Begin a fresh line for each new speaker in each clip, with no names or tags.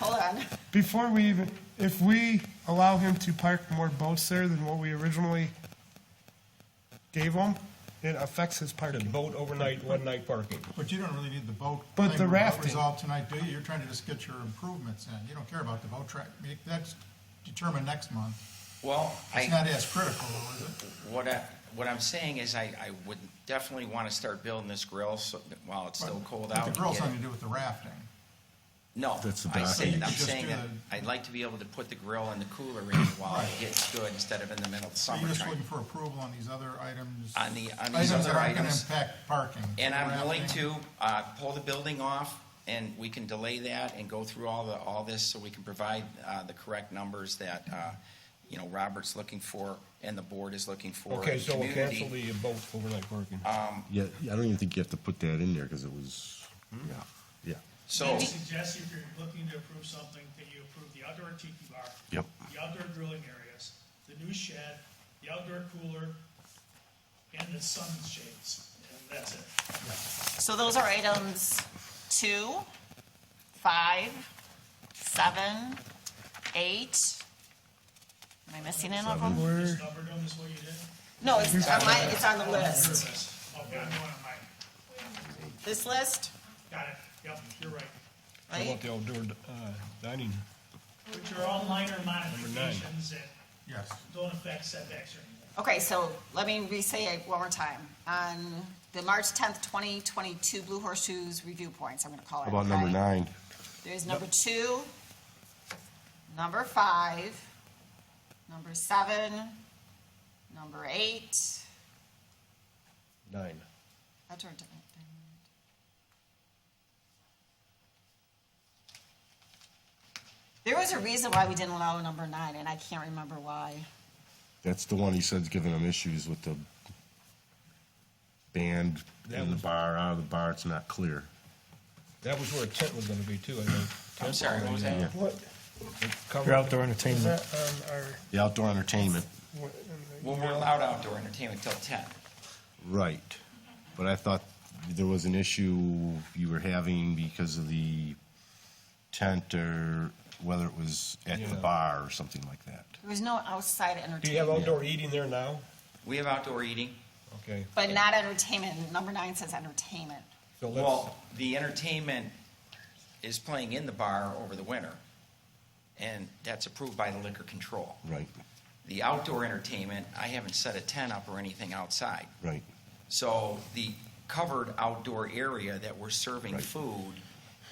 done.
Before we even, if we allow him to park more boats there than what we originally gave him, it affects his
Just
parking.
boat overnight, one night parking.
But you don't really need the boat.
But
thing
the
re-
rafting.
Resolved tonight, do you? You're trying to just get your improvements in. You don't care about the boat track. I mean, That's determined next month.
Well,
It's
I,
not as critical, though, is it?
what I, what I'm saying is I, I would definitely want to start building this grill so, that while it's still
But-
cold
but
out.
The grill's
get it-
something to do with the rafting.
No,
That's the
I
back
say,
end.
I'm
You could
saying
just
that
do the-
I'd like to be able to put the grill and the cooler in while it gets good instead of in the middle of
So you're just
summertime.
looking for approval on these other items?
On the- on these
Items
other
that aren't going to
items.
impact parking.
And I'm willing
Rafting.
to, uh, pull the building off and we can delay that and go through all the, all this so we can provide, uh, the correct numbers that, uh, you know, Robert's looking for and the board is looking for.
Okay,
and
so we'll
community.
cancel the boat overnight parking.
Yeah, I don't even think you have to put that in there because it was, yeah, yeah.
So,
I suggest if you're looking to approve something, that you approve the outdoor tiki bar.
Yep.
The outdoor grilling areas, the new shed, the outdoor cooler, and the sunshades, and that's it.
So those are items two, five, seven, eight. Am I missing any of them?
We're,
Just numbered them is what you did?
No, it's on my, it's on the
Your
list.
list. Okay, I'm going on mine.
This list,
Got it. Yep, you're right.
How
right?
about the outdoor uh, dining?
Which are all minor modifications that
Yes.
don't affect setbacks or anything.
Okay, so let me re-say it one more time. On the March tenth, twenty twenty-two Blue Horseshoes review points, I'm gonna call it.
How about number
okay?
nine?
There's number two, number five, number seven, number eight.
Nine.
I turned it back down. There was a reason why we didn't allow number nine, and I can't remember why.
That's the one he said's giving him issues with the band in the bar, out of the bar, it's not clear.
That was where a tent was gonna be too, I think.
I'm sorry, what was that?
what,
Your outdoor entertainment.
that on our,
The outdoor entertainment.
what-
Well, we're allowed outdoor entertainment till ten.
Right. But I thought there was an issue you were having because of the tent or whether it was at the
Yeah.
bar or something like that.
There was no outside
Do you have
entertainment,
outdoor eating there now?
We have outdoor eating.
Okay,
but not entertainment. Number nine says entertainment.
so let's,
Well, the entertainment is playing in the bar over the winter, and that's approved by the liquor control.
Right,
The outdoor entertainment, I haven't set a tent up or anything outside.
right.
So the covered outdoor area that we're serving food,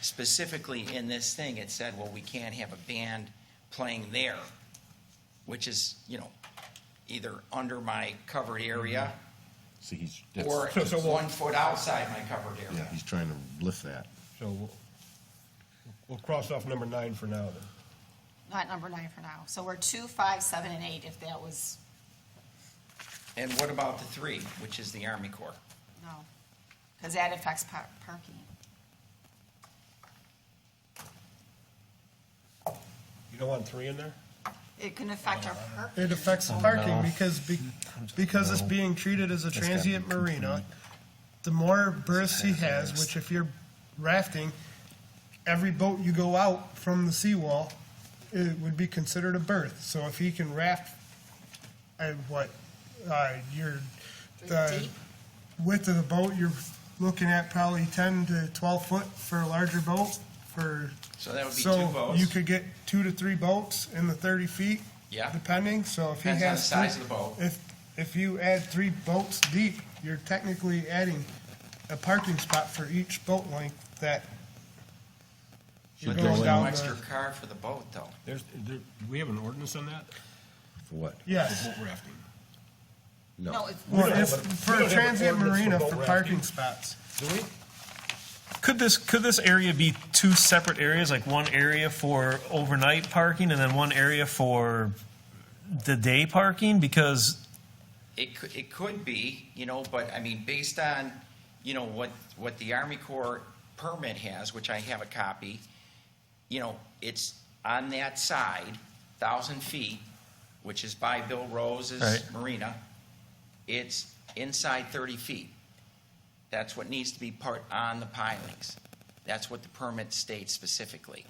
specifically in this thing, it said, well, we can't have a band playing there, which is, you know, either under my covered area
Mm-hmm. So he's,
or
that's,
So- so we'll-
one foot outside my covered
yeah,
area.
he's trying to lift that.
so we'll, we'll cross off number nine for now then.
Not number nine for now. So we're two, five, seven, and eight, if that was,
And what about the three, which is the Army Corps?
no. Because that affects par- parking.
You don't want three in there?
It can affect our parking.
It affects the parking because, be- because it's being treated as a transient marina. The more berths he has, which if you're rafting, every boat you go out from the seawall, it would be considered a berth. So if he can raft, I, what, uh, you're, the
Deep.
width of the boat, you're looking at probably ten to twelve foot for a larger boat for.
So that would be
so
two boats.
You could get two to three boats in the thirty feet.
Yeah.
Depending, so if he
Depends on
has.
the size
three-
of the boat.
If, if you add three boats deep, you're technically adding a parking spot for each boat length that.
But
goes
there's no
down
extra
the-
car for the boat, though.
There's, there, do we have an ordinance on that?
For what?
Yes.
Boat rafting.
No, it's,
Well,
don't have
if,
a- we
for
don't
a
have an
transient
ordinance for
marina,
boat
for
rafting.
parking spots.
Do we?
Could this, could this area be two separate areas, like one area for overnight parking and then one area for the day parking? Because
It could, it could be, you know, but I mean, based on, you know, what, what the Army Corps permit has, which I have a copy, you know, it's on that side, thousand feet, which is by Bill Rose's
Right.
marina. It's inside thirty feet. That's what needs to be part on the pilings. That's what the permit states specifically.